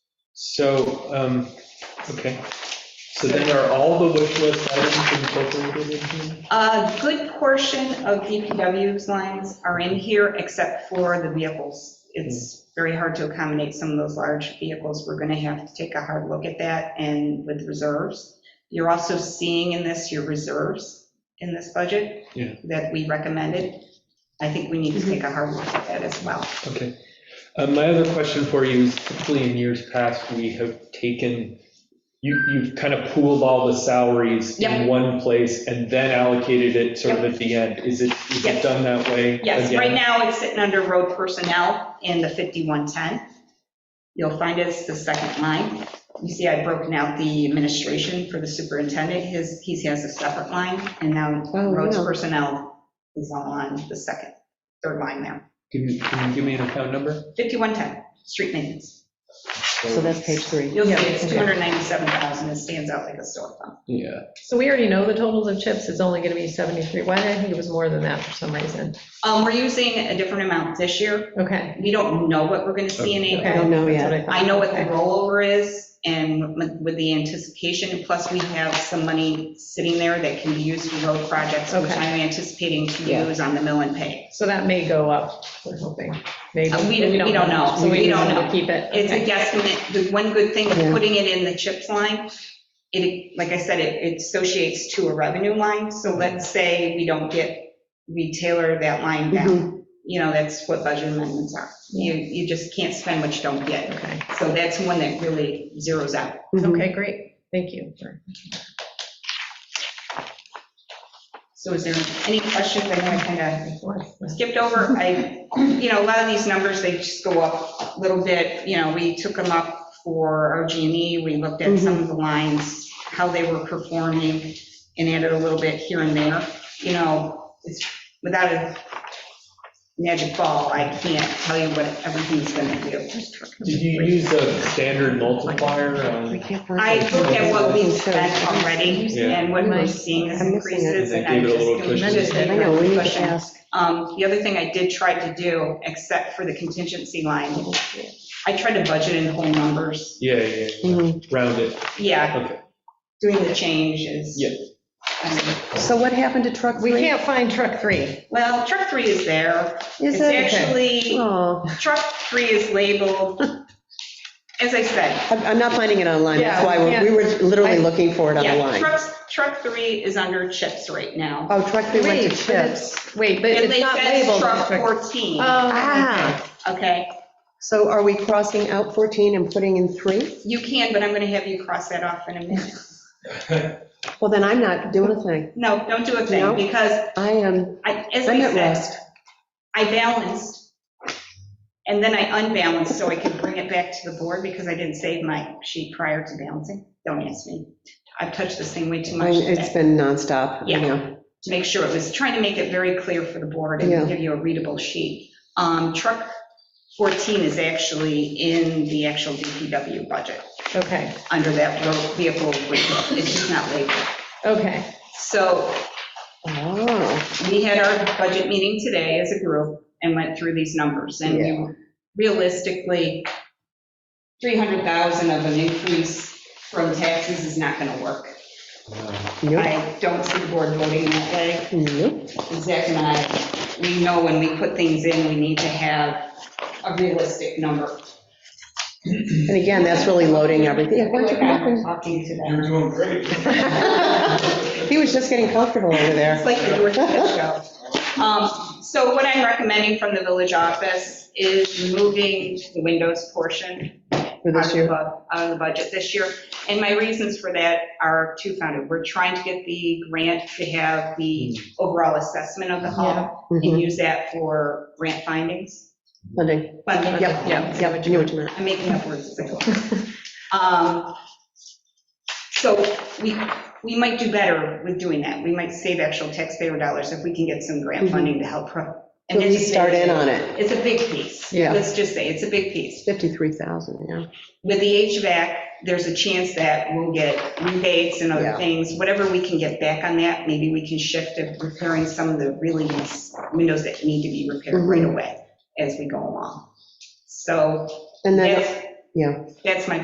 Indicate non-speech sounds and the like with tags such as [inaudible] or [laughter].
So, um, okay, so then are all the wish list items incorporated in here? A good portion of DPW's lines are in here, except for the vehicles. It's very hard to accommodate some of those large vehicles. We're going to have to take a hard look at that and with reserves. You're also seeing in this your reserves in this budget Yeah. that we recommended. I think we need to take a hard look at that as well. Okay. Uh, My other question for you is typically in years past, we have taken, you, you've kind of pooled all the salaries in Yep. one place and then allocated it sort of at the end. Is it, is it Yes. done that way? Yes, again? right now it's sitting under road personnel in the 5110. You'll find it's the second line. You see I've broken out the administration for the superintendent, his, he has a separate line, and now Oh, roads wow. personnel is all on the second, third line now. Can you, can you give me an account number? 5110, street maintenance. So that's page three. You'll see Yeah, it's okay. 297,000, it stands out like a sore thumb. Yeah. So we already know the totals of chips is only going to be 73. Why did I think it was more than that for some reason? Um, we're using a different amount this year. Okay. We don't know what we're gonna see in April. Okay, don't know that's yet. what I thought. I know what the Okay. rollover is and with the anticipation, plus we have some money sitting there that can be used for road projects, which Okay. I'm anticipating to Yeah. use on the mill and pay. So that may go up, we're hoping, maybe. Uh, we- we don't know. So We we don't don't know. to keep it. It's a Okay. guesstimate. The one good thing of Yeah. putting it in the CHIPS line, it, like I said, it it associates to a revenue line. So let's say we don't get, we tailor that line Mm-hmm. down. You know, that's what budget amendments are. You, you just can't spend what you don't get. Okay, So that's one that really zeroes out. Mm-hmm. okay, great, thank you. for- So is there any questions? I know I kind of skipped over, I, you know, a lot of these numbers, they just go up a little bit, you know, we took them up for OG&E, E. we looked at some of the lines, how they were performing, and added a little bit here and there, you know, it's, without a magic ball, I can't tell you what everything's gonna do. Did you use a standard multiplier? um, I looked at what we've spent already, Yeah. and what we're seeing as I'm missing it. increases, and They I'm gave it a just little gonna cushion. just I give know, it we a need to cushion. ask. Um, The other thing I did try to do, except for the contingency line, I tried to budget in whole numbers. Yeah, yeah, yeah. Mhm. round it. Okay. Yeah, doing the change is. Yeah. Um, So what happened to truck We three? can't find truck three. Well, truck three is there. Is It's it? actually, Oh, truck three is labeled, as I said. I'm I'm not finding it online, that's Yeah, why yeah. we we were literally I- looking for it on Yeah, the line. trucks, truck three is under chips right now. Oh, truck three went Wait, to but chips. it's- Wait, but And it's they not said labeled truck as truck. 14, Oh, Ah, okay? so are we crossing out 14 and putting in three? You can, but I'm going to have you cross that off in a minute. Well, then I'm not doing a thing. No, don't do a No. thing, because I am, I, as I'm I at said, rest. I balanced, and then I unbalanced so I could bring it back to the board because I didn't save my sheet prior to balancing. Don't ask me. I've touched this thing way too I- much It's today been nonstop, Yeah. you know. to make sure it was, trying to make it very clear for the board and Yeah. give you a readable sheet. Um, Truck 14 is actually in the actual DPW budget, okay, under that road vehicle, repair. it's just not labeled. okay. So Oh, we had our budget meeting today as a group and went through these numbers. And Yeah. realistically, 300,000 of an increase from taxes is not going to work. nope, I don't see the board voting that way. nope. Zach and I, we know when we put things in, we need to have a realistic number. And again, that's really loading everything. Yeah, why don't you come up and- Talking to You're them. doing great. He was just getting comfortable over It's there. like the George [laughs] Pitt show. Um, So what I'm recommending from the village office is removing the windows portion [laughs] For out this of year. the bu- out of the budget this year. And my reasons for that are two-founded. We're trying to get the grant to have the overall assessment of the hall Mhm. and use that for grant findings. Funding. Funding. Yep, yep, yep, I knew what you meant. I'm making up words as I go. [laughs] Um, So we, we might do better with doing that. We might save actual taxpayer dollars if we can get some grant Mhm. funding to help. pro- At and it's- least start in on it. It's a big piece. Yeah. Let's just say, it's a big piece. 53,000, yeah. With the HVAC, there's a chance that we'll get rebates and other Yeah. things, whatever we can get back on that, maybe we can shift to repairing some of the really nice windows that need to be repaired Mm-hmm. right away as we go along. So And then, that's, yeah. that's my